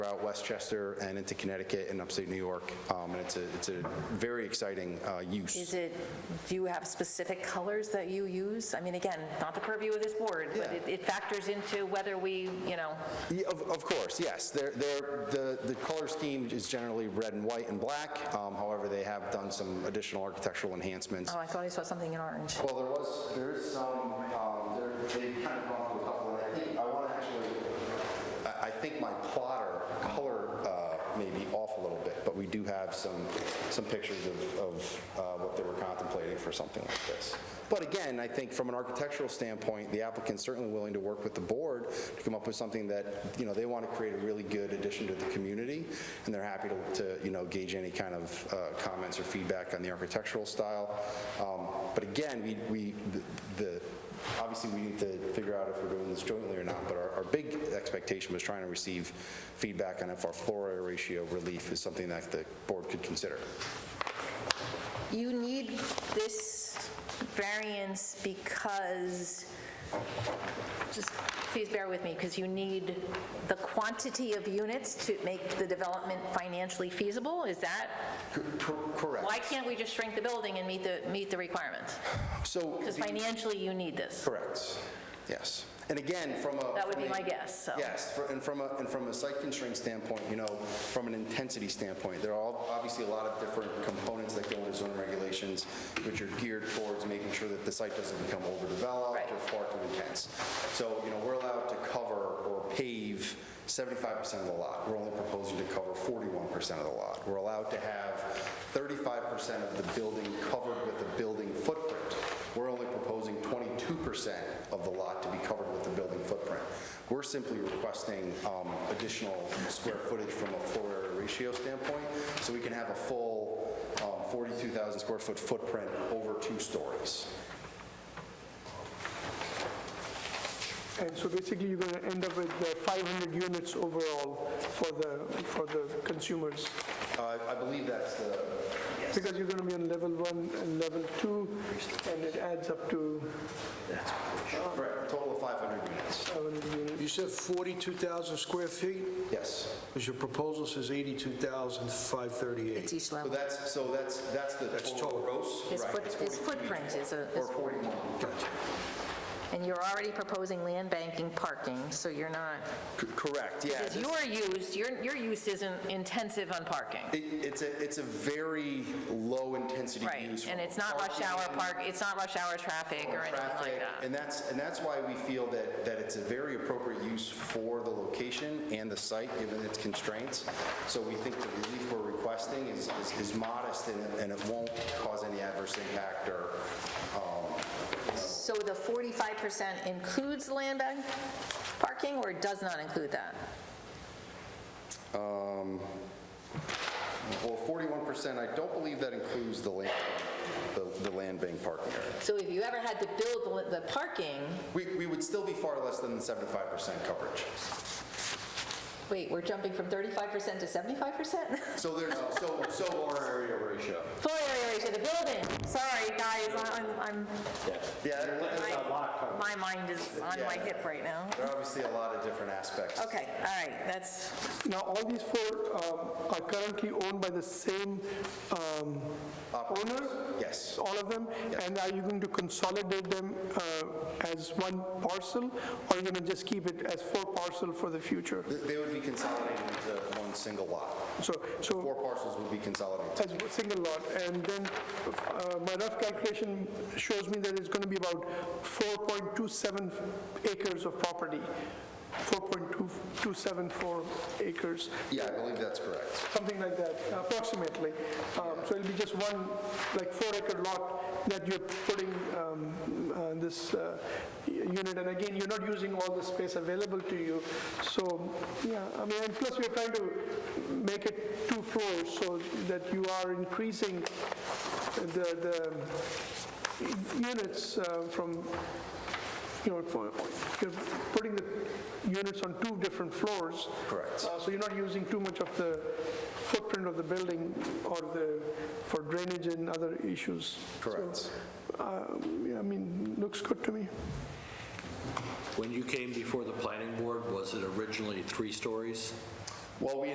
throughout Westchester and into Connecticut and upstate New York. Um, And it's a, it's a very exciting uh, Is use. it, do you have specific colors that you use? I mean, again, not the purview of this board, but Yeah. it- it factors into whether we, you know, Yeah, Of, of course, yes. They're, they're, the, the color scheme is generally red and white and black. Um, However, they have done some additional architectural enhancements. oh, I thought I saw something in orange. Well, there was, there is some, um, there, they kind of gone through a couple, and I think, I want to actually, I, I think my plotter color uh, may be off a little bit, but we do have some, some pictures of, of uh, what they were contemplating for something like this. But again, I think from an architectural standpoint, the applicant's certainly willing to work with the board to come up with something that, you know, they want to create a really good addition to the community, and they're happy to, to, you know, gauge any kind of uh, comments or feedback on the architectural style. Um, But again, we, we, the- the, obviously, we need to figure out if we're doing this jointly or not, but our, our big expectation was trying to receive feedback on if our floor area ratio relief is something that the board could consider. You need this variance because, just please bear with me, because you need the quantity of units to make the development financially feasible? Is that, Correct. why can't we just shrink the building and meet the, meet the requirements? So, Because financially, you need this. correct, yes. And again, from a. That would be from a- my guess, so. Yes, for- and from a, and from a site constraint standpoint, you know, from an intensity standpoint, there are all- obviously a lot of different components that go into zoning regulations, which are geared towards making sure that the site doesn't become overdeveloped or far too intense. So, you know, we're allowed to cover or pave 75% of the lot. We're only proposing to cover 41% of the lot. We're allowed to have 35% of the building covered with a building footprint. We're only proposing 22% of the lot to be covered with the building footprint. We're simply requesting um, additional square footage from a floor area ratio standpoint, so we can have a full um, 42,000 square foot footprint over two stories. And so basically, you're going to end up with uh, 500 units overall for the, for the consumers, Uh, I believe that's the, because you're going to be on level one and level two, and it adds up to correct, total of 500 units. 700 units. You said 42,000 square feet, Yes. because your proposal says 82,538. each So that's, so that's, that's the That's total total. gross. His right, foot- it's his 42 footprint is a- Or is- 41. Gotcha. And you're already proposing land banking parking, so you're not, C- Correct, yeah. because your use, your, your use isn't intensive on parking. It- It's a, it's a very low-intensity Right, use. and from it's not rush hour parking, park, it's not rush hour traffic or anything like traffic, that. And that's, and that's why we feel that, that it's a very appropriate use for the location and the site, given its constraints. So we think the relief we're requesting is, is- is modest and it- and it won't cause any adverse impact or, So the 45% includes land bank parking or does not include that? well, 41%, I don't believe that includes the land, the the land bank parking area. So if you ever had to build the the parking, We, we would still be far less than the 75% coverage. wait, we're jumping from 35% to 75%? So there's, so, so. Floor area ratio. Floor area to the building, sorry, guys, I'm- I'm, Yeah, I'm, my mind is on my hip right now. there are obviously a lot of different aspects. Okay, all right, that's, Now, all these four um, are currently owned by the same um, owner, Yes, all of them? And are you going to consolidate them uh, as one parcel, or are you going to just keep it as four parcel for the future? Th- they would be consolidated into one single lot. So, Four so parcels would be consolidated. as a single lot, and then uh, my rough calculation shows me that it's going to be about 4.27 acres of property, 4.274 acres. Yeah, I believe that's correct. something like that, approximately. Um, So it'll be just one, like four-acre lot that you're putting um, uh, this uh, y- unit, and again, you're not using all the space available to you, so, yeah, I mean, and plus we're trying to make it two floors so that you are increasing the, the units uh, from, you know, for- you're putting the units on two different floors. Correct. Uh, So you're not using too much of the footprint of the building or the, for drainage and other issues. Correct. Yeah, I mean, looks good to me. When you came before the planning board, was it originally three stories? Well, we